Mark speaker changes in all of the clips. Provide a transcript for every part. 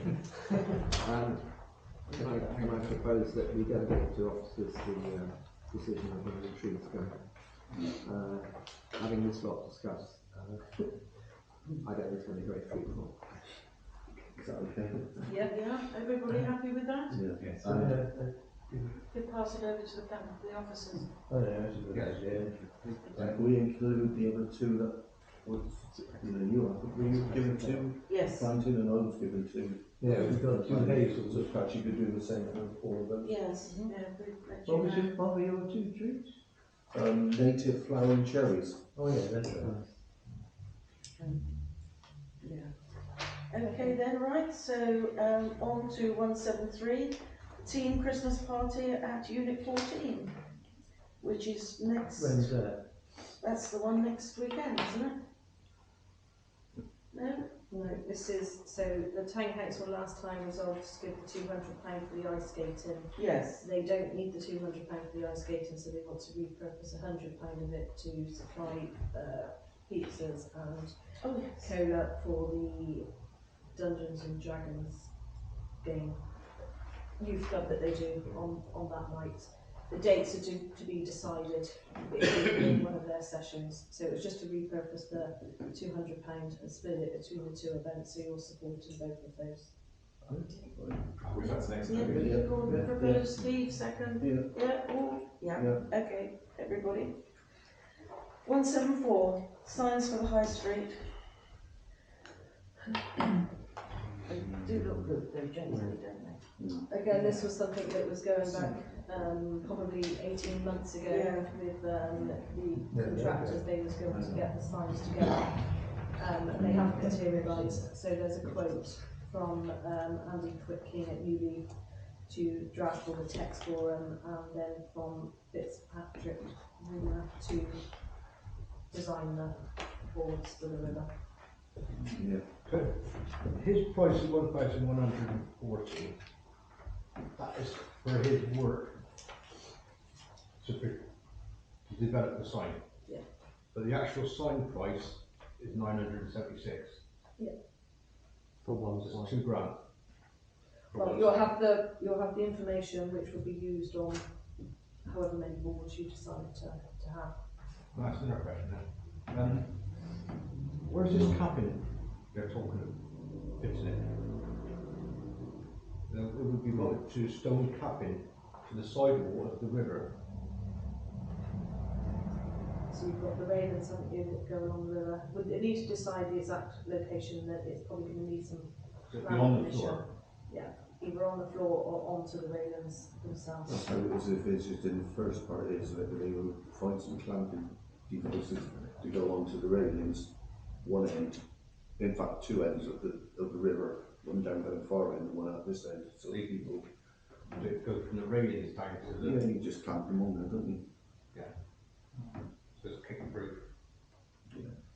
Speaker 1: Um, Can I, can I propose that we delegate to officers the uh, decision of whether the trees go? Uh, Having this lot discussed, uh, I don't think it's going to be very fruitful.
Speaker 2: Is that okay?
Speaker 3: Yeah, yeah, everybody happy with that?
Speaker 2: Yes.
Speaker 4: Oh,
Speaker 2: Uh,
Speaker 3: You're passing over to the, back- the officers.
Speaker 4: yeah, that's a good idea.
Speaker 2: like, we include the other two that was, you know, you, I think were you given two,
Speaker 3: Yes.
Speaker 2: planting and I was given two.
Speaker 4: Yeah, we've got
Speaker 2: Two
Speaker 4: two
Speaker 2: hazels,
Speaker 4: hazels.
Speaker 2: so perhaps you could do the same for all of them.
Speaker 3: Yes, yeah, we've let
Speaker 4: What was
Speaker 3: you know.
Speaker 4: it, what were your two trees?
Speaker 2: Um, native flowering cherries.
Speaker 4: Oh, yeah, that's right.
Speaker 3: Yeah. Okay then, right, so, um, on to one seven three, team Christmas party at unit fourteen, which is next,
Speaker 4: When's that?
Speaker 3: that's the one next weekend, isn't it? No?
Speaker 5: No, this is, so the town council last time resolved to give the two hundred pound for the ice skating.
Speaker 3: Yes.
Speaker 5: They don't need the two hundred pound for the ice skating, so they want to repurpose a hundred pound of it to supply, uh, pizzas and
Speaker 3: Oh, yes.
Speaker 5: cola for the Dungeons and Dragons game youth club that they do on, on that night. The dates are due to be decided in one of their sessions. So it was just to repurpose the two hundred pound and split it between the two events. So you're supporting both of those.
Speaker 3: Yeah,
Speaker 2: Yeah,
Speaker 3: Gordon
Speaker 2: yeah,
Speaker 3: proposed, Steve second,
Speaker 2: Yeah,
Speaker 3: yeah, all, yeah,
Speaker 2: yeah.
Speaker 3: okay, everybody. One seven four, signs for the high street. They do look good, though, generally, don't they?
Speaker 5: Again, this was something that was going back um, probably eighteen months ago
Speaker 3: Yeah.
Speaker 5: with um, the
Speaker 4: Yeah,
Speaker 5: contractors. They was going to get the signs together. Um, they haven't materialised. So there's a quote from um, Andy Twitkin at Newly to draft all the text for him, and then from Fitzpatrick Rimmer to design the boards for the river.
Speaker 2: yeah.
Speaker 6: His price is one thousand one hundred and forty. That is for his work. To, pre- to develop the sign.
Speaker 5: Yeah.
Speaker 6: But the actual sign price is nine hundred and seventy-six,
Speaker 1: For one
Speaker 6: it's two grand.
Speaker 5: Well, you'll have the, you'll have the information which will be used on however many boards you decide to, to have.
Speaker 6: That's another question now. Um, where's this cabinet they're talking of fixing it? Now, it would be voted to stone capping to the sidewall of the river.
Speaker 5: So you've got the railings, haven't you, that go along the river. Would they need to decide the exact location that it's probably gonna need some,
Speaker 6: It'd be
Speaker 5: Right,
Speaker 6: on the
Speaker 5: permission.
Speaker 6: floor.
Speaker 5: either on the floor or onto the railings
Speaker 2: Well,
Speaker 5: themselves.
Speaker 2: So it was if it's just in the first part is that they will find some clamping devices to go onto the railings, one end, in fact, two ends of the, of the river, one down by the far end and one out this end, so they people,
Speaker 6: It goes from the railings down to
Speaker 2: yeah,
Speaker 6: the,
Speaker 2: you just clamp them on there, don't you?
Speaker 6: so it's kicking through.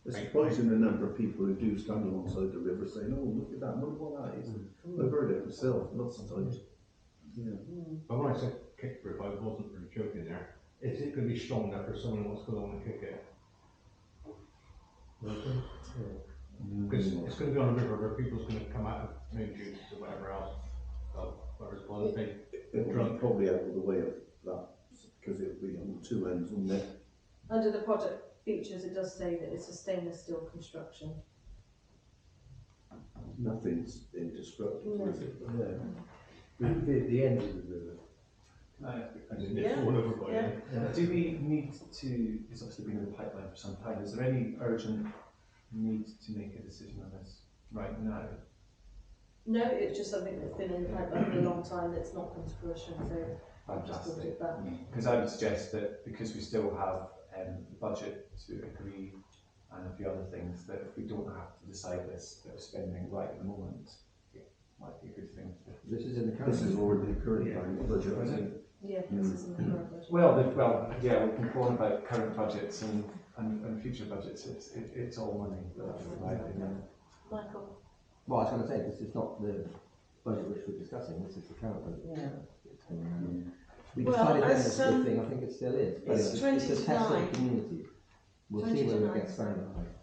Speaker 2: It's
Speaker 6: Right.
Speaker 2: surprising the number of people who do stand alongside the river saying, oh, look at that, wonder what that is, I've heard it myself lots of times. Yeah,
Speaker 6: But when I said kick through, I wasn't really joking there. Is it gonna be strong enough for someone who wants to go along and kick it? Because it's gonna be on a river where people's gonna come out of main juices or whatever else, uh, whatever's bothering them.
Speaker 2: it will be probably out of the way of that, because it'll be on two ends, wouldn't it?
Speaker 5: Under the product features, it does say that it's a stainless steel construction.
Speaker 2: Nothing's indestructible, is it?
Speaker 4: Yeah. We'd be at the end of the river.
Speaker 6: And then it's all over by then.
Speaker 7: Uh, Do we need to, it's obviously been in the pipeline for some time, is there any urgent need to make a decision on this right now?
Speaker 5: No, it's just something that's been in the pipeline for a long time that's not come to fruition, so I've just put
Speaker 7: Fantastic.
Speaker 5: it back.
Speaker 7: Because I would suggest that because we still have um, the budget to agree and a few other things, that if we don't have to decide this, that we're spending right at the moment, it might be a good thing to
Speaker 4: This is in the
Speaker 2: This
Speaker 4: council.
Speaker 2: is already the current planning budget, I
Speaker 7: Is it?
Speaker 2: think.
Speaker 5: Yeah,
Speaker 6: Mm.
Speaker 5: this is in the current version.
Speaker 7: Well, the, well, yeah, we can complain about current budgets and, and, and future budgets. It's, it, it's all money, that's my opinion.
Speaker 3: Michael?
Speaker 1: Well, I was gonna say, this is not the budget which we're discussing, this is the current budget.
Speaker 3: Yeah.
Speaker 1: Um, We
Speaker 3: Well,
Speaker 1: decided then
Speaker 3: as,
Speaker 1: it's a good
Speaker 3: um,
Speaker 1: thing, I think it still is, but
Speaker 3: it's
Speaker 1: it's it's a test of
Speaker 3: 20 to
Speaker 1: the community. We'll see
Speaker 5: 20 to
Speaker 1: whether it
Speaker 5: nine.
Speaker 1: gets found out.